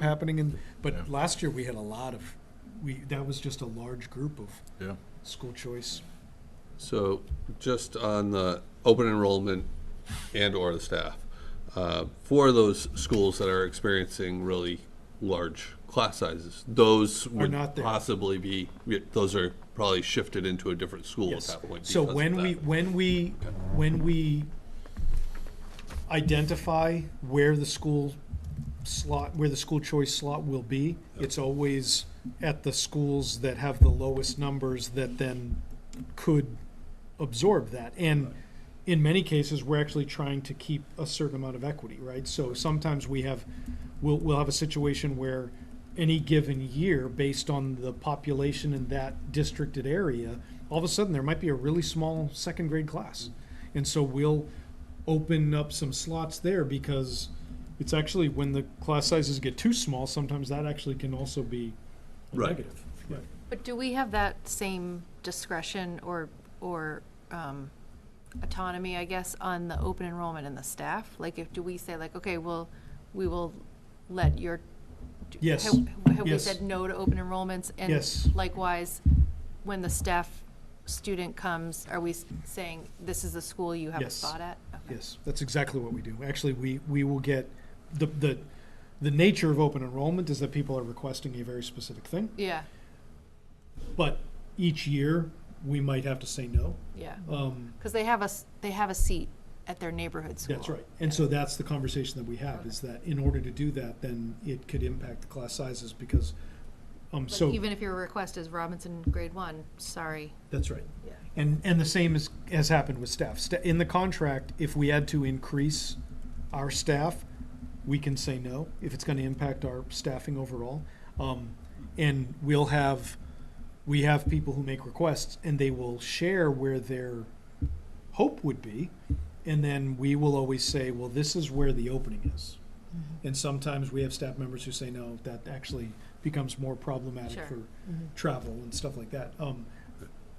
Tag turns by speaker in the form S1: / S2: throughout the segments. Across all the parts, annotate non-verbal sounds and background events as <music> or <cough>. S1: happening in,
S2: Yeah.
S1: but last year we had a lot of, we, that was just a large group of
S2: Yeah.
S1: school choice.
S3: So just on the open enrollment and/or the staff, uh, for those schools that are experiencing really large class sizes, those would
S1: not there.
S3: possibly be, those are probably shifted into a different school at
S1: Yes.
S3: that point.
S1: So
S3: because of
S1: when we,
S3: that.
S1: when we, when we identify where the school slot, where the school choice slot will be, it's always at the schools that have the lowest numbers that then could absorb that. And in many cases, we're actually trying to keep a certain amount of equity, right? So sometimes we have, we'll, we'll have a situation where any given year, based on the population in that districted area, all of a sudden, there might be a really small second grade class. And so we'll open up some slots there because it's actually when the class sizes get too small, sometimes that actually can also be a
S3: Right.
S1: negative. Right.
S4: But do we have that same discretion or, or um, autonomy, I guess, on the open enrollment and the staff? Like, if, do we say like, okay, well, we will let your. do-
S1: Yes.
S4: have- Have we
S1: Yes.
S4: said no to open enrollments?
S1: Yes.
S4: And likewise, when the staff student comes, are we s- saying, this is the school you have a
S1: Yes.
S4: spot at? Okay.
S1: Yes, that's exactly what we do. Actually, we, we will get, the, the, the nature of open enrollment is that people are requesting a very specific thing.
S4: Yeah,
S1: But each year, we might have to say no.
S4: yeah.
S1: Um,
S4: Because they have a, s- they have a seat at their neighborhood school.
S1: That's right. And so that's the conversation that we have, is that in order to do that, then it could impact the class sizes because, um,
S4: Like,
S1: so,
S4: Even if your request is Robinson grade one, sorry.
S1: that's right.
S4: Yeah.
S1: And, and the same is, has happened with staff. Sta- In the contract, if we had to increase our staff, we can say no, if it's gonna impact our staffing overall. Um, and we'll have, we have people who make requests, and they will share where their hope would be. And then we will always say, well, this is where the opening is. And sometimes we have staff members who say, no, that actually becomes more problematic
S4: Sure.
S1: for travel and stuff like that. Um,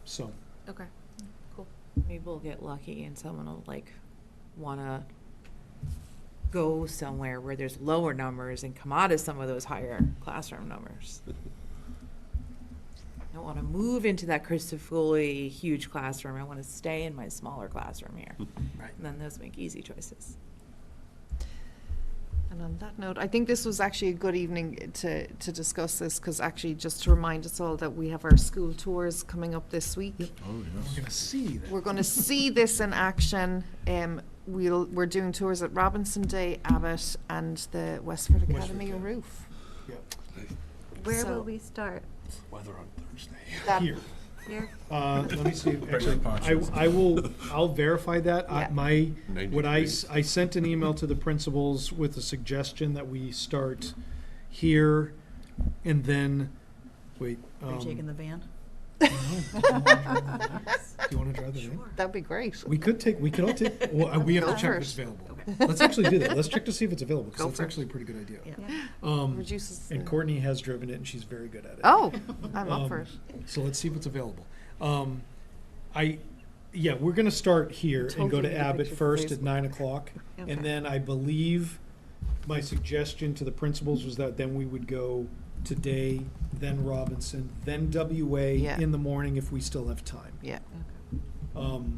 S1: so.
S4: Okay.
S5: Maybe we'll get lucky and someone will like wanna go somewhere where there's lower numbers and come out of some of those higher classroom numbers. I don't wanna move into that Christofoli huge classroom. I wanna stay in my smaller classroom here.
S1: Right.
S5: And then those make easy choices.
S6: And on that note, I think this was actually a good evening to, to discuss this, because actually, just to remind us all that we have our school tours coming up this week.
S2: Oh, yes.
S1: gonna see that.
S6: We're gonna see this in action. Um, we'll, we're doing tours at Robinson Day, Abbott, and the Westford Academy
S1: Academy.
S6: roof.
S7: Where
S6: So-
S7: will we start?
S2: Weather on Thursday.
S6: That-
S1: Here,
S7: Here?
S1: uh, let me see,
S2: your
S1: actually, I,
S2: ponchos.
S1: I will, I'll verify that, I,
S6: Yeah.
S1: my,
S3: 90
S1: what I,
S3: degrees.
S1: s- I sent an email to the principals with a suggestion that we start here, and then, wait, um, do <laughs>
S5: the van?
S1: you wanna drive the van?
S6: That'd be great.
S1: We could take, we could all take, well, uh, we have to
S6: Go
S1: check if it's
S6: first.
S1: available. Let's actually do that, let's check to see if it's available,
S6: Go
S1: because that's
S6: first.
S1: actually a pretty good idea.
S7: Yeah.
S1: Um,
S6: Reduces.
S1: and
S6: the-
S1: Courtney has driven it, and she's very good at it.
S6: Oh, I'm up
S1: Um,
S6: for it.
S1: So let's see what's available. Um, I, yeah, we're gonna start here and go
S6: Totally
S1: to
S6: get a
S1: Abbott
S6: picture for
S1: first at
S6: Facebook.
S1: nine o'clock.
S6: Okay.
S1: And then I believe my suggestion to the principals was that then we would go today, then Robinson, then WA
S6: Yeah.
S1: in the morning if we still have time.
S6: Yeah.
S1: Um,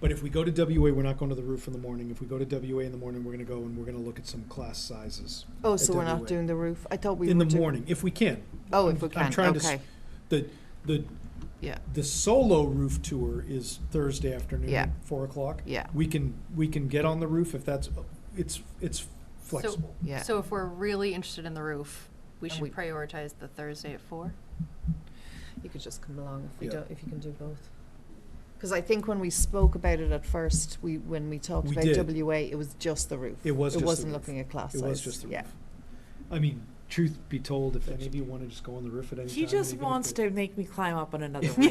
S1: But if we go to WA, we're not going to the roof in the morning. If we go to WA in the morning, we're gonna go and we're gonna look at some class sizes.
S6: Oh,
S1: At
S6: so we're not
S1: WA.
S6: doing the roof? I thought we were
S1: In the
S6: doing-
S1: morning, if we can.
S6: Oh,
S1: I'm-
S6: if we
S1: I'm
S6: can,
S1: trying to s-
S6: okay.
S1: The, the
S6: Yeah,
S1: the solo roof tour is Thursday afternoon,
S6: Yeah.
S1: four o'clock.
S6: Yeah.
S1: We can we can get on the roof if that's it's it's flexible.
S6: yeah.
S4: So if we're really interested in the roof, we
S6: And
S4: should
S6: we-
S4: prioritize the Thursday at four?
S6: You could just come along if we
S1: Yeah.
S6: don't, if you can do both. Because I think when we spoke about it at first, we, when we talked
S1: We
S6: about
S1: did.
S6: WA, it was just the roof.
S1: It was just
S6: It
S1: the
S6: wasn't
S1: roof.
S6: looking at class
S1: it
S6: size.
S1: was just the
S6: Yeah.
S1: roof. I mean, truth be told, if any of you want to just go on the roof at any
S5: He
S1: time,
S5: just
S1: even if
S5: wants
S1: it-
S5: to make me climb up on another one.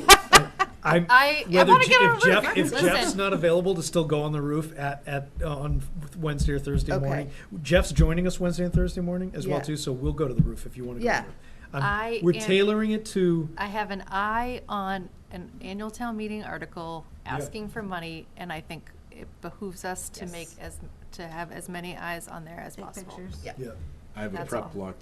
S1: I'm,
S4: I, I
S1: whether
S4: want to
S1: Je-
S4: get on
S1: if
S4: the
S1: Jeff
S4: roof.
S1: if Jeff's
S4: Listen,
S1: not available to still go on the roof at at uh, on Wednesday or Thursday
S6: Okay.
S1: morning. Jeff's joining us Wednesday and Thursday morning as well
S6: Yeah.
S1: too, so we'll go to the roof if you want to go.
S6: Yeah.
S1: To the roof. Um,
S4: I
S1: we're
S4: am-
S1: tailoring it to
S4: I have an eye on an annual town meeting article
S1: Yeah.
S4: asking for money, and I think it behooves us to make
S5: Yes.
S4: as, to have as many eyes on there as possible.
S1: yeah.
S3: I have a
S8: That's all.
S3: prep block